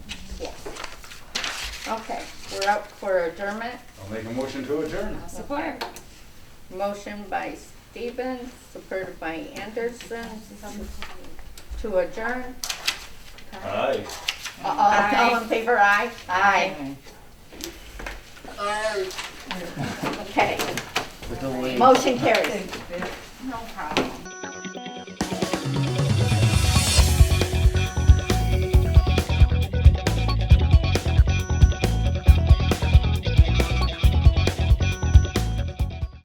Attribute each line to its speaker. Speaker 1: Okay, we're up for adjournment.
Speaker 2: I'll make a motion to adjourn.
Speaker 1: Support. Motion by Stevens, supported by Anderson, to adjourn.
Speaker 2: Aye.
Speaker 1: Uh, All, all in favor, aye? Aye. Okay, motion carries.